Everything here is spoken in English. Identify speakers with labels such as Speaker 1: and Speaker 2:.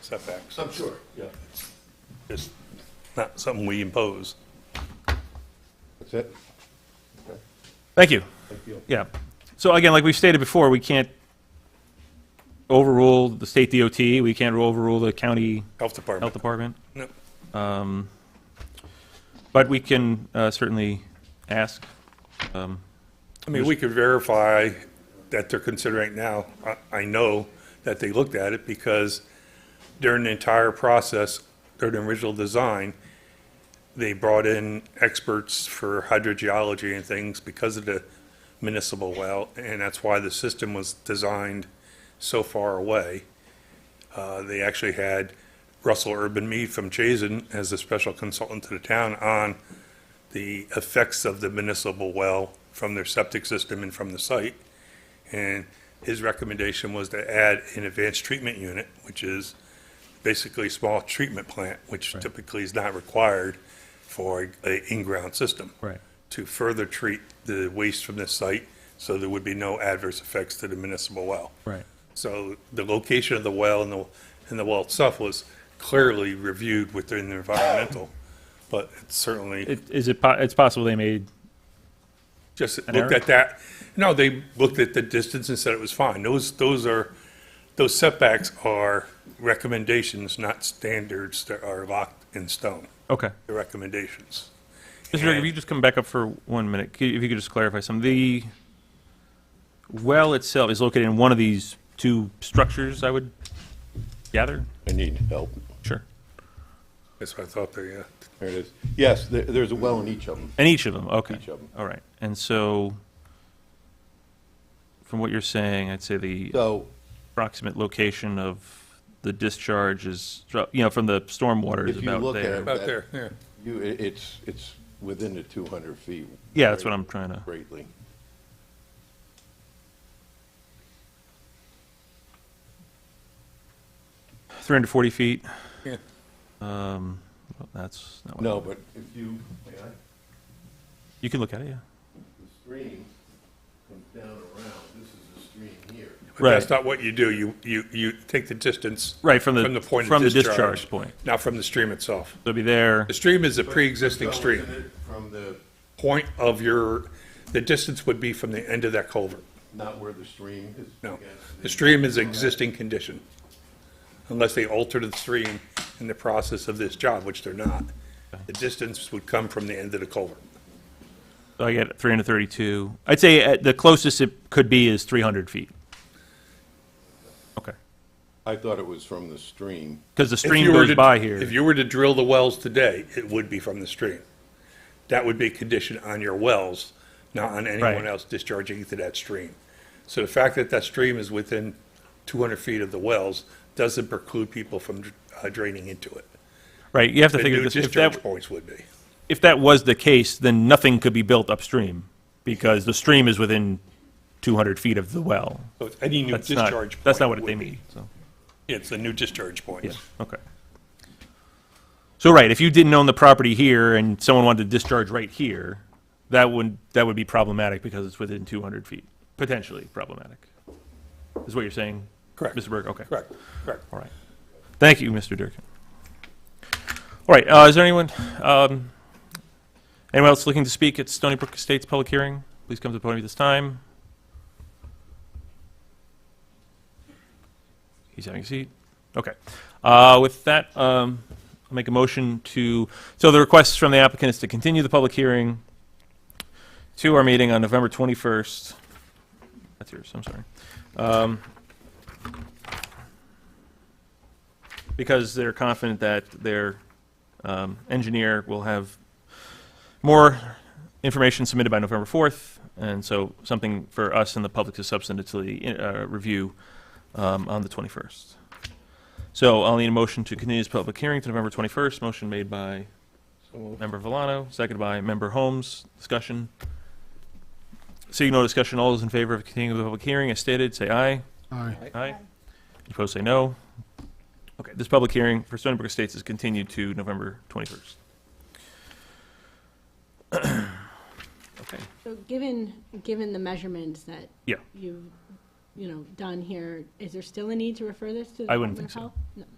Speaker 1: setbacks.
Speaker 2: I'm sure.
Speaker 1: Yeah. It's not something we impose.
Speaker 2: That's it?
Speaker 3: Thank you.
Speaker 2: Thank you.
Speaker 3: Yeah. So again, like we've stated before, we can't overrule the state DOT, we can't overrule the county
Speaker 1: Health
Speaker 3: health
Speaker 1: Department.
Speaker 3: department,
Speaker 1: No.
Speaker 3: but we can uh, certainly ask. um,
Speaker 1: I mean, we could verify that they're considering it now. I, I know that they looked at it because during the entire process, during the original design, they brought in experts for hydrogeology and things because of the municipal well, and that's why the system was designed so far away. Uh, they actually had Russell Urban Mead from Chazen as a special consultant to the town on the effects of the municipal well from their septic system and from the site. And his recommendation was to add an advanced treatment unit, which is basically a small treatment plant, which typically is not required for a- a in-ground system.
Speaker 3: Right.
Speaker 1: To further treat the waste from this site, so there would be no adverse effects to the municipal well.
Speaker 3: Right.
Speaker 1: So the location of the well and the, and the well itself was clearly reviewed within the environmental, but it's certainly.
Speaker 3: It- Is it, po- it's possible they made,
Speaker 1: just
Speaker 3: An
Speaker 1: looked
Speaker 3: error?
Speaker 1: at that. No, they looked at the distance and said it was fine. Those, those are, those setbacks are recommendations, not standards that are locked in stone.
Speaker 3: okay.
Speaker 1: The recommendations.
Speaker 3: Mr. Director, if you just come back up for one minute, c- if you could just clarify something. The well itself is located in one of these two structures, I would gather?
Speaker 2: I need help.
Speaker 3: Sure.
Speaker 1: That's what I thought they, uh,
Speaker 2: There it is. Yes, there, there's a well in each of them.
Speaker 3: In each of them, okay.
Speaker 2: Each of 'em.
Speaker 3: All right, and so, from what you're saying, I'd say the
Speaker 2: So,
Speaker 3: approximate location of the discharge is, you know, from the stormwater is
Speaker 2: If you
Speaker 3: about
Speaker 2: look at
Speaker 3: there.
Speaker 2: it-
Speaker 1: about there, yeah.
Speaker 2: you, i- it's, it's within the two hundred feet.
Speaker 3: Yeah, that's what I'm trying to,
Speaker 2: Greatly.
Speaker 3: three hundred forty feet,
Speaker 1: yeah.
Speaker 3: um, well, that's not what.
Speaker 2: No, but if you, may I?
Speaker 3: You can look at it, yeah.
Speaker 2: the stream comes down around, this is the stream here.
Speaker 1: But that's
Speaker 3: Right.
Speaker 1: not what you do. You, you, you take the distance.
Speaker 3: Right, from the-
Speaker 1: point of
Speaker 3: from the discharge point.
Speaker 1: Not from the stream itself.
Speaker 3: So it'll be there,
Speaker 1: The stream is a pre-existing stream.
Speaker 2: Well, isn't it From the,
Speaker 1: Point of your, the distance would be from the end of that culvert.
Speaker 2: not where the stream is.
Speaker 1: No,
Speaker 2: against
Speaker 1: the stream is existing condition, unless they alter the stream in the process of this job, which they're not. The distance would come from the end of the culvert.
Speaker 3: so I get three hundred thirty-two. I'd say uh, the closest it could be is three hundred feet. Okay,
Speaker 2: I thought it was from the stream.
Speaker 3: because the
Speaker 1: If
Speaker 3: stream
Speaker 1: you were
Speaker 3: goes
Speaker 1: to-
Speaker 3: by here.
Speaker 1: If you were to drill the wells today, it would be from the stream. That would be conditioned on your wells, not on anyone
Speaker 3: Right.
Speaker 1: else discharging into that stream. So the fact that that stream is within 200 feet of the wells doesn't preclude people from uh, draining into it.
Speaker 3: Right, you have to
Speaker 1: The
Speaker 3: figure
Speaker 1: new
Speaker 3: this, if that,
Speaker 1: discharge points would be.
Speaker 3: if that was the case, then nothing could be built upstream, because the stream is within 200 feet of the well.
Speaker 1: So it's any new
Speaker 3: That's not,
Speaker 1: discharge.
Speaker 3: that's not
Speaker 1: point
Speaker 3: what they
Speaker 1: would be-
Speaker 3: mean, so,
Speaker 1: It's the new discharge
Speaker 3: yeah,
Speaker 1: points.
Speaker 3: okay. So, right, if you didn't own the property here and someone wanted to discharge right here, that would, that would be problematic because it's within 200 feet, potentially problematic. Is what you're saying?
Speaker 1: Correct.
Speaker 3: Mr. Berg, okay.
Speaker 1: Correct, correct.
Speaker 3: All right. Thank you, Mr. Durkin. All right, uh, is there anyone, um, anyone else looking to speak at Stony Brook Estates public hearing? Please come to the podium at this time. He's having a seat. Okay. Uh, with that, um, I'll make a motion to, so the request from the applicant is to continue the public hearing to our meeting on November 21st. That's yours, I'm sorry. because they're confident that their um, engineer will have more information submitted by November 4th, and so something for us and the public to substantively uh, review um, on the 21st. So I'll need a motion to continue this public hearing to November 21st. Motion made by Member Villano, seconded by Member Holmes. Discussion. Seeing no discussion, all those in favor of continuing the public hearing as stated, say aye.
Speaker 4: Aye.
Speaker 3: Aye. Opposed, say no. Okay, this public hearing for Stony Brook Estates is continued to November 21st. Okay,
Speaker 5: So given, given the measurements that
Speaker 3: yeah,
Speaker 5: you've, you know, done here, is there still a need to refer this to the
Speaker 3: I wouldn't
Speaker 5: Department of
Speaker 3: think
Speaker 5: Health?